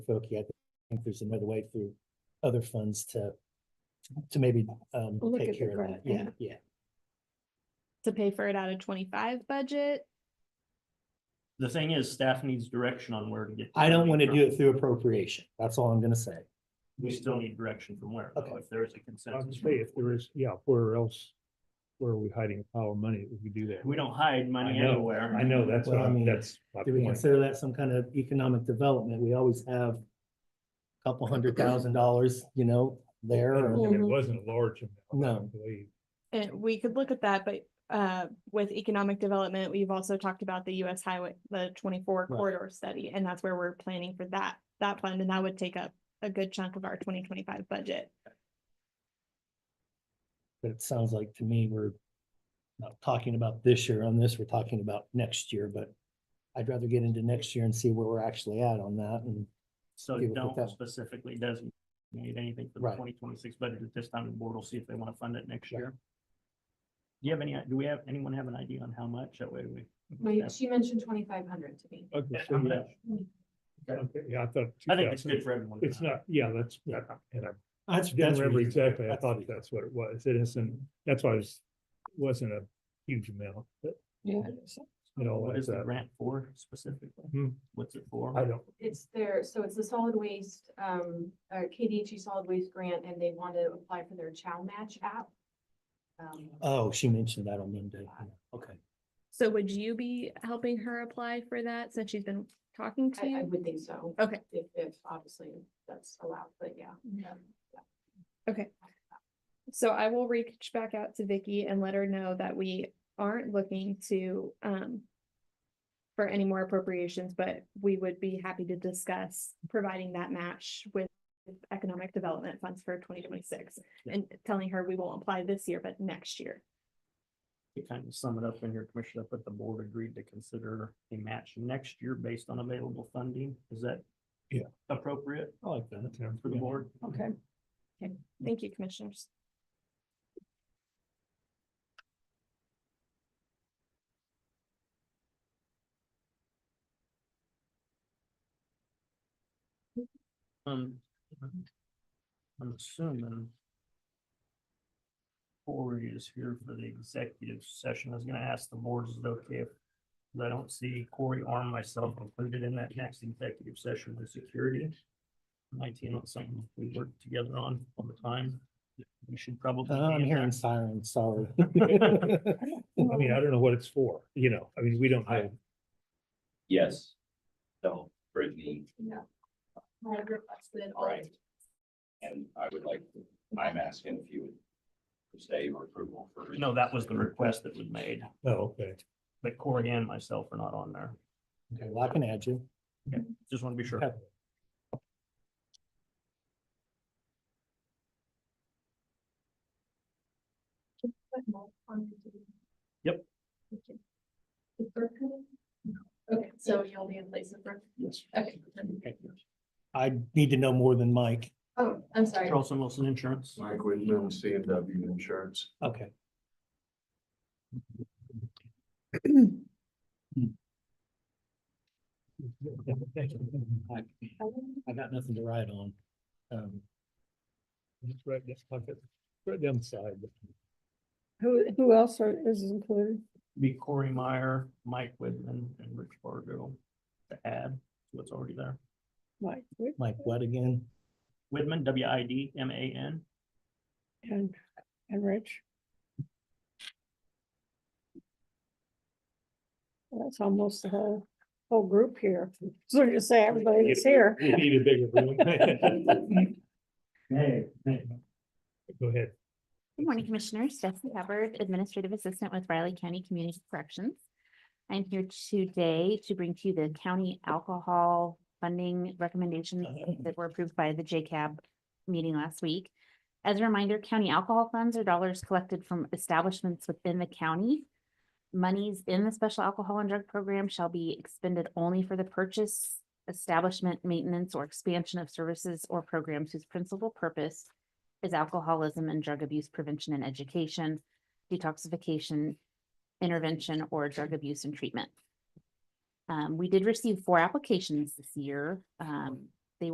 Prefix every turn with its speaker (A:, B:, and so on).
A: Okie, I think there's another way through other funds to, to maybe, um,
B: Look at
A: take
B: the
A: care of that.
B: grant,
A: Yeah,
B: yeah.
A: yeah.
B: to pay for it out of twenty-five budget.
C: The thing is, staff needs direction on where to get. the
A: I don't
C: money
A: want to
C: from.
A: do it through appropriation. That's all I'm gonna say.
C: We still need direction from where, though,
A: Okay.
C: if there is a
D: I was
C: consensus.
D: gonna say, if there is, yeah, where else, where are we hiding a pile of money if we do that?
C: We don't hide money
D: I know,
C: anywhere.
D: I know, that's what
A: Well, I mean,
D: I'm, that's my
A: Do we
D: point.
A: consider that some kind of economic development? We always have a couple hundred thousand dollars, you know, there.
D: And
A: or-
D: It
B: Mhm.
D: wasn't a large. amount, I
A: No.
D: believe.
B: And we could look at that, but uh, with economic development, we've also talked about the US highway, the twenty-four
A: Right.
B: corridor study, and that's where we're planning for that, that fund, and that would take up a good chunk of our twenty twenty-five budget.
A: But it sounds like to me, we're not talking about this year on this, we're talking about next year, but I'd rather get into next year and see where we're actually at on that and
C: So
A: Okay, we'll put
C: don't
A: that-
C: specifically designate anything for
A: Right.
C: the twenty twenty-six budget at this time. The board will see if they want to fund it next year. Do you have any, do we have, anyone have an idea on how much? That way we.
E: My, she mentioned twenty-five hundred to me.
D: Okay, so
C: I'm
D: yeah.
C: not-
D: Okay, yeah, I thought.
C: I think it's
D: 2000
C: good for everyone. to
D: It's
C: know.
D: not, yeah, that's, yeah, and I
A: that's.
D: didn't
A: that's
D: remember
A: reasonable.
D: exactly, I
A: That's
D: thought
A: reasonable.
D: that's what it was, it isn't, that's why it was, wasn't a huge amount, but it all
C: What is
D: adds
C: the
D: up.
C: grant for specifically?
D: Hmm.
C: What's it for?
D: I don't,
E: It's there, so it's the solid waste, um, uh, KDHE solid waste grant, and they want to apply for their Chow Match app. Um,
A: Oh, she mentioned that on Monday. Okay.
B: So would you be helping her apply for that since she's been talking to
E: I, I
B: you?
E: would think so.
B: Okay.
E: If, if obviously that's allowed, but yeah.
B: So I will reach back out to Vicky and let her know that we aren't looking to um. For any more appropriations, but we would be happy to discuss providing that match with economic development funds for twenty twenty-six. And telling her we won't apply this year, but next year.
C: To kind of sum it up in your commissioner, but the board agreed to consider a match next year based on available funding. Is that?
D: Yeah.
C: Appropriate
A: I like that.
D: yeah,
C: for the board?
A: Okay.
B: Thank you, commissioners.
C: Um. I'm assuming. Corey is here for the executive session. I was gonna ask the board, is it okay if? 'cause I don't see Corey or myself included in that next executive session with security. Might be not something we work together on all the time. We should probably.
A: Uh, I'm
C: be in
A: hearing
C: that.
A: sirens, sorry. Oh,
D: I mean, I don't know what it's for, you know, I mean, we don't have,
F: Yes. So Brittany
E: I requested all-
F: Right. and I would like, I'm asking if you would say your approval for.
C: No, that was the request that was made,
D: oh, okay.
C: but Corey and myself are not on there.
A: Okay, well, I can add you.
C: Just want to be sure.
A: Okay.
C: Yep.
E: Is Brooke coming? Okay, so you'll be in place of Brooke?
C: Yes.
E: Okay.
A: I need to know more than Mike.
E: Oh, I'm sorry.
C: Charleston Wilson Insurance.
G: Mike Whitman, CMW Insurance.
A: Okay. I I got nothing to write on. Um,
D: Just right this pocket, right down the side.
H: Who, who else are, is included?
C: Be Corey Meyer, Mike Whitman, and Rich Fargo to add to what's already there.
H: Mike, Whit-
A: Mike, what again?
C: Whitman, W I D M A N.
H: and, and Rich? That's almost the whole, whole group here. So you say everybody that's here.
D: We need a bigger room.
C: Hey, hey.
D: Go ahead.
I: Good morning, Commissioners. Jessica Hubbard, Administrative Assistant with Riley County Community Corrections. I'm here today to bring to you the county alcohol funding recommendations that were approved by the JCAB meeting last week. As a reminder, county alcohol funds are dollars collected from establishments within the county. Monies in the special alcohol and drug program shall be expended only for the purchase, establishment, maintenance, or expansion of services or programs whose principal purpose is alcoholism and drug abuse prevention and education, detoxification, intervention, or drug abuse and treatment. Um, we did receive four applications this year. Um,